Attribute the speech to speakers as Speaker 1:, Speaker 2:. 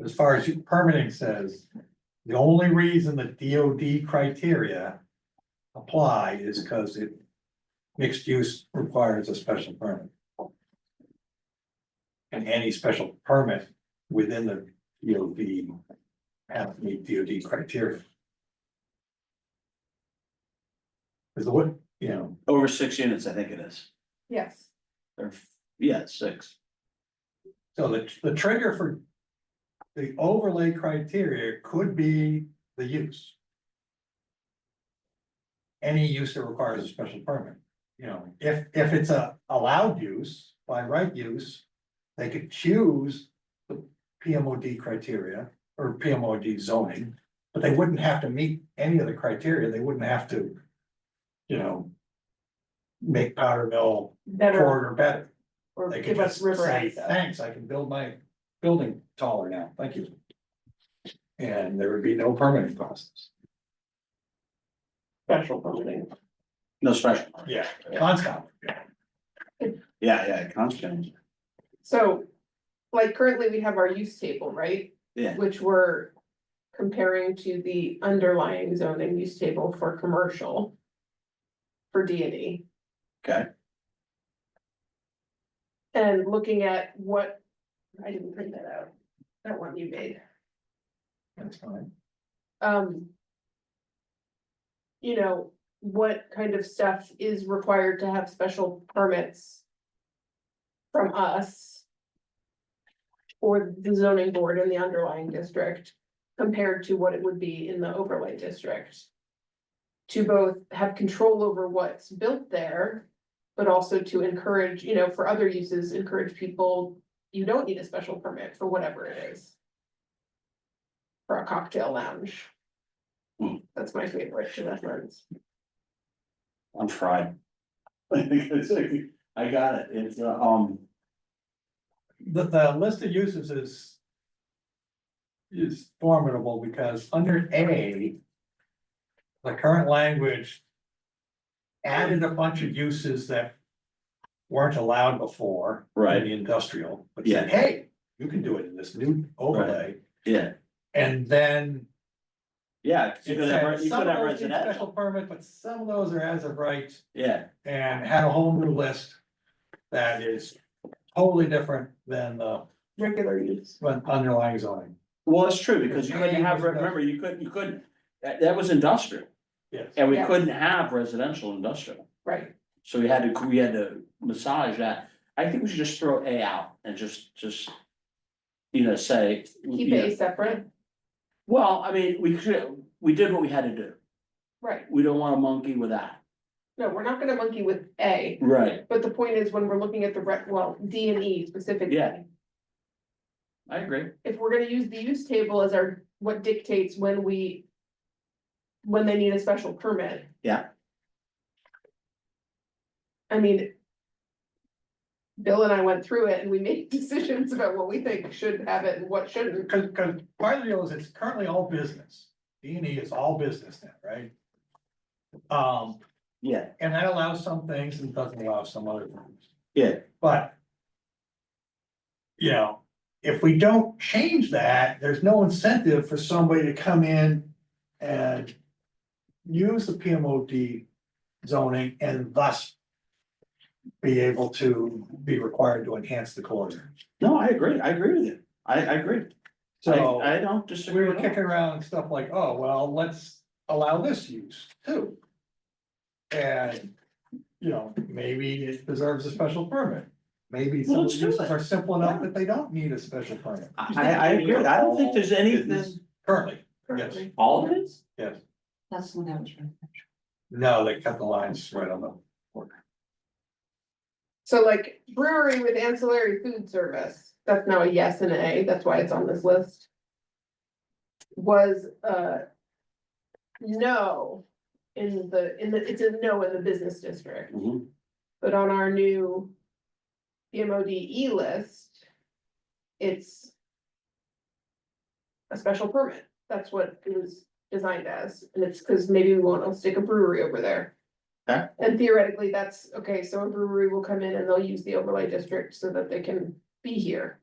Speaker 1: as far as you- permitting says, the only reason the DOD criteria apply is because it mixed use requires a special permit. And any special permit within the DOD has to meet DOD criteria. Is the what, you know,
Speaker 2: Over six units, I think it is.
Speaker 3: Yes,
Speaker 2: Or, yeah, it's six.
Speaker 1: so the, the trigger for the overlay criteria could be the use. Any use that requires a special permit, you know, if, if it's a allowed use by right use, they could choose the PMOD criteria or PMOD zoning, but they wouldn't have to meet any of the criteria. They wouldn't have to, you know, make powder mill
Speaker 3: better
Speaker 1: corridor better.
Speaker 3: or
Speaker 1: They could
Speaker 3: give us
Speaker 1: just
Speaker 3: river
Speaker 1: say,
Speaker 3: access.
Speaker 1: thanks, I can build my building taller now, thank you. And there would be no permitting process.
Speaker 3: Special permitting.
Speaker 2: No special.
Speaker 1: Yeah. Conscom,
Speaker 2: Yeah, yeah, constant.
Speaker 3: So, like currently we have our use table, right?
Speaker 2: Yeah.
Speaker 3: Which we're comparing to the underlying zoning use table for commercial. For D and E.
Speaker 2: Okay.
Speaker 3: And looking at what, I didn't print that out, that one you made.
Speaker 1: that's fine.
Speaker 3: um. You know, what kind of stuff is required to have special permits? From us. Or the zoning board in the underlying district compared to what it would be in the overlay district. To both have control over what's built there, but also to encourage, you know, for other uses, encourage people. You don't need a special permit for whatever it is. For a cocktail lounge.
Speaker 2: Hmm.
Speaker 3: That's my favorite to reference.
Speaker 2: I'm fried. I got it. It's, uh, um,
Speaker 1: The, the list of uses is. Is formidable because under A. The current language. Added a bunch of uses that. Weren't allowed before.
Speaker 2: Right.
Speaker 1: In the industrial, but said, hey, you can do it in this new overlay,
Speaker 2: yeah,
Speaker 1: and then.
Speaker 2: yeah. 'cause You
Speaker 1: It
Speaker 2: could have,
Speaker 1: said
Speaker 2: you could
Speaker 1: Some
Speaker 2: have
Speaker 1: of those need special
Speaker 2: residential.
Speaker 1: permit, but some of those are as of right
Speaker 2: Yeah,
Speaker 1: and had a whole new list. That is totally different than the
Speaker 3: Regular use.
Speaker 1: than underlying zoning.
Speaker 2: well, it's true because you couldn't
Speaker 1: Maybe
Speaker 2: have,
Speaker 1: residential.
Speaker 2: remember, you couldn't, you couldn't, that, that was industrial.
Speaker 1: Yes.
Speaker 2: And we
Speaker 3: Yeah.
Speaker 2: couldn't have residential industrial.
Speaker 3: Right,
Speaker 2: So we had to, we had to massage that. I think we should just throw A out and just, just. You know, say.
Speaker 3: keep
Speaker 2: you know,
Speaker 3: A separate,
Speaker 2: Well, I mean, we could, we did what we had to do.
Speaker 3: right,
Speaker 2: We don't want to monkey with that.
Speaker 3: no, we're not gonna monkey with A,
Speaker 2: Right.
Speaker 3: but the point is when we're looking at the rec, well, D and E specifically.
Speaker 2: Yeah. I agree.
Speaker 3: If we're gonna use the use table as our, what dictates when we. When they need a special permit.
Speaker 2: Yeah.
Speaker 3: I mean. Bill and I went through it and we made decisions about what we think should have it and what shouldn't,
Speaker 1: Cause, cause part of the deal is it's currently all business. D and E is all business now, right? Um,
Speaker 2: Yeah,
Speaker 1: and that allows some things and doesn't allow some other things.
Speaker 2: Yeah.
Speaker 1: But. You know, if we don't change that, there's no incentive for somebody to come in and. Use the PMOD zoning and thus. Be able to be required to enhance the corridor.
Speaker 2: no, I agree. I agree with you. I, I agree.
Speaker 1: So.
Speaker 2: I, I don't
Speaker 1: We
Speaker 2: disagree
Speaker 1: were
Speaker 2: at all.
Speaker 1: kicking around stuff like, oh, well, let's allow this use too. And, you know, maybe it deserves a special permit. Maybe
Speaker 2: Well,
Speaker 1: some
Speaker 2: let's do
Speaker 1: uses
Speaker 2: it.
Speaker 1: are simple enough that they don't need a special permit
Speaker 2: I, I agree. I don't think there's anything.
Speaker 1: currently.
Speaker 3: currently.
Speaker 2: All of it?
Speaker 1: Yes.
Speaker 4: That's the one I was trying to.
Speaker 1: No, they cut the lines right on them.
Speaker 3: So like brewery with ancillary food service, that's now a yes and a, that's why it's on this list. Was uh no in the, in the, it's a no in the business district,
Speaker 2: Mhm.
Speaker 3: but on our new PMODE E list, it's a special permit, that's what it was designed as, and it's because maybe we want to stick a brewery over there.
Speaker 2: Okay.
Speaker 3: And theoretically, that's, okay, so a brewery will come in and they'll use the overlay district so that they can be here.